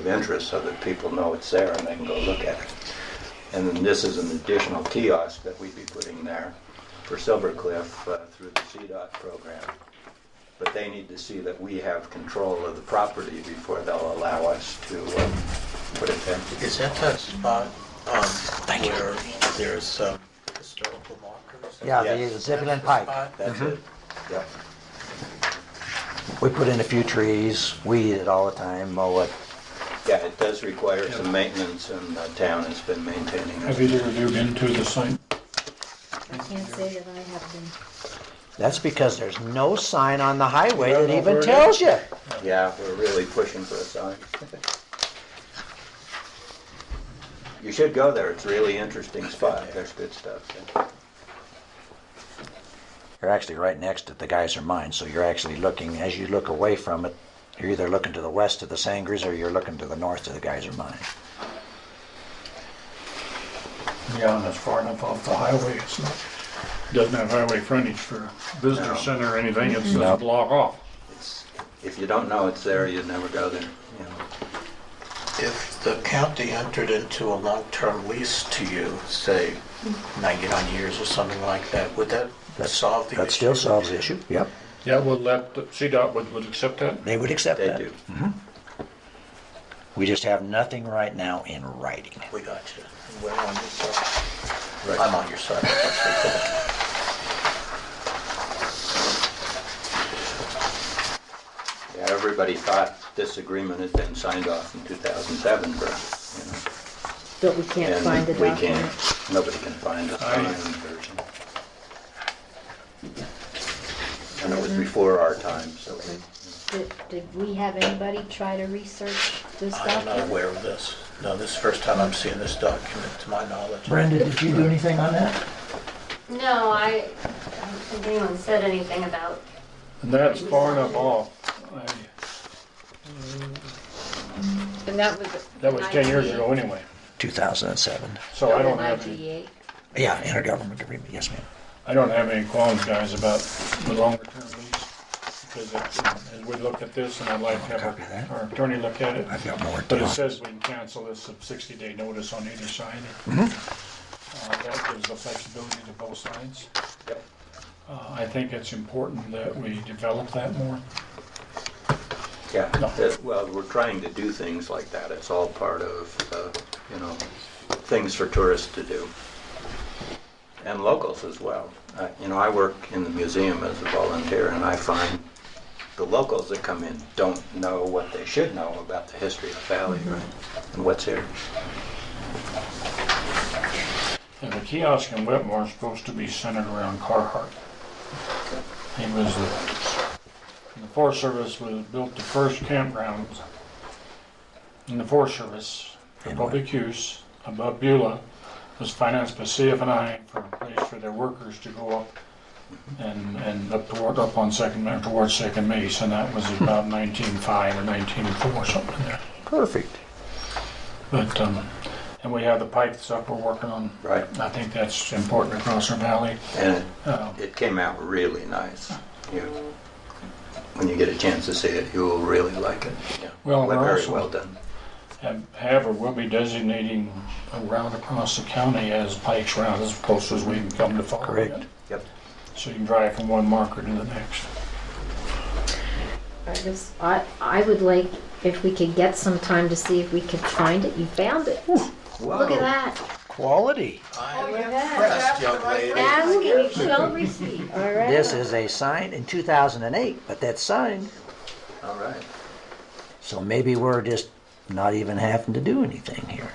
of interest so that people know it's there and they can go look at it. And then this is an additional kiosk that we'd be putting there for Silver Cliff uh, through the CDOT program. But they need to see that we have control of the property before they'll allow us to uh, put it there. Is that that spot um, where there's um, historical markers? Yeah, Yes. the Zebulon That's the Pike. spot? That's it. Yep. We put in a few trees, weed it all the time, mow it. Yeah, it does require some maintenance and the town has been maintaining Have it. either of you been to the site? I can't say that I have been. That's because there's no sign on the highway No, that no, even we're- tells you. Yeah, we're really pushing for a sign. You should go there, it's a really interesting spot, there's good stuff. there. You're actually right next to the Geyser Mine, so you're actually looking, as you look away from it, you're either looking to the west of the Sangres or you're looking to the north of the Geyser Mine. Yeah, and it's far enough off the highway, it's not, doesn't have highway frontage for visitor center or anything, it's just a No. block off. It's- If you don't know it's there, you'd never go there, you know. If the county entered into a long-term lease to you, say 99 years or something like that, would that solve the issue? That still solves the issue, yep. Yeah, well, that, CDOT would, would accept that? They would accept They that. do. We just have nothing right now in writing. We got you. We're on your side. Right. I'm on your side. Yeah, everybody thought this agreement had been signed off in 2007, but, you know. But we can't and find the we can't- document. Nobody can find the I- signed version. And it was before our time, so we- Did, did we have anybody try to research this I'm not document? aware of this. No, this is the first time I'm seeing this document, to my knowledge. Brenda, did you do anything on that? No, I, I don't think anyone said anything about, And that's far enough off, I- And that was. that was ten years ago anyway, 2007. so I don't have, any- IGA. Yeah, intergovernment agreement, yes ma'am. I don't have any qualms, guys, about the longer term lease. Because it- as we look at this, and I'd like to Copy that. have our attorney look at it, I've got more but to it on. says we can cancel this at sixty day notice on either side. Uh, that gives the flexibility to both sides. Yep. Uh, I think it's important that we develop that more. Yeah, No. that- well, we're trying to do things like that. It's all part of, uh, you know, things for tourists to do. And locals as well. Uh, You know, I work in the museum as a volunteer, and I find the locals that come in don't know what they should know about the history of the valley, right? Mm-hmm. And what's here. And the kiosk in Whitmore is supposed to be centered around Carhartt. He was the, the Forest Service was built the first campground in the Forest Service for In public use above Beulah. Was financed by CFNI for a place for their workers to go up and, and up toward, up on Second, towards Second Mesa. And that was about nineteen-five or nineteen-four, something in there. Perfect. But, um, and we have the pipe that's up, we're working on. Right. I think that's important across our valley. And it Uh, It came out really nice. You, when you get a chance to see it, you will really like it. Yeah. Well, we're very also- well done. Have have or will be designating a route across the county as Pike's Route, as close as we can come to following Correct. it. Yep. So you can drive from one marker to the next. I just, I, I would like, if we could get some time to see if we could find it. You found it. Look at that. Quality. I'm you're back. impressed, young lady. Ask and you shall receive. All right. This is a sign in 2008, but that's signed, All right. so maybe we're just not even having to do anything here.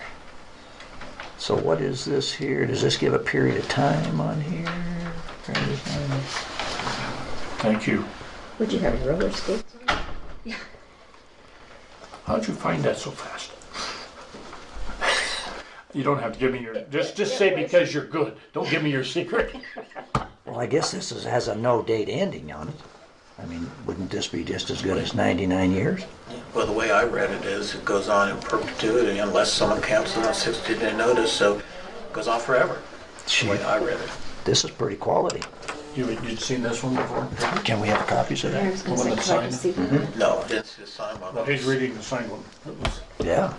So what is this here? Does this give a period of time on here? Period of time? Thank you. Would you have roller skates? How'd you find that so fast? You don't have to give me your, just, just say because you're good. Don't give me your secret. Well, I guess this is, has a no date ending on it. I mean, wouldn't this be just as good as 99 years? Well, the way I read it is, it goes on in perpetuity unless someone cancels on 60-day notice, so it goes on forever, the way I read it. This is pretty quality. You, you'd seen this one before? Can we have copies of I that? was gonna Well, say, let's could I sign just it. see that? No, it's the sign one. Well, he's reading the same one. It was- Yeah.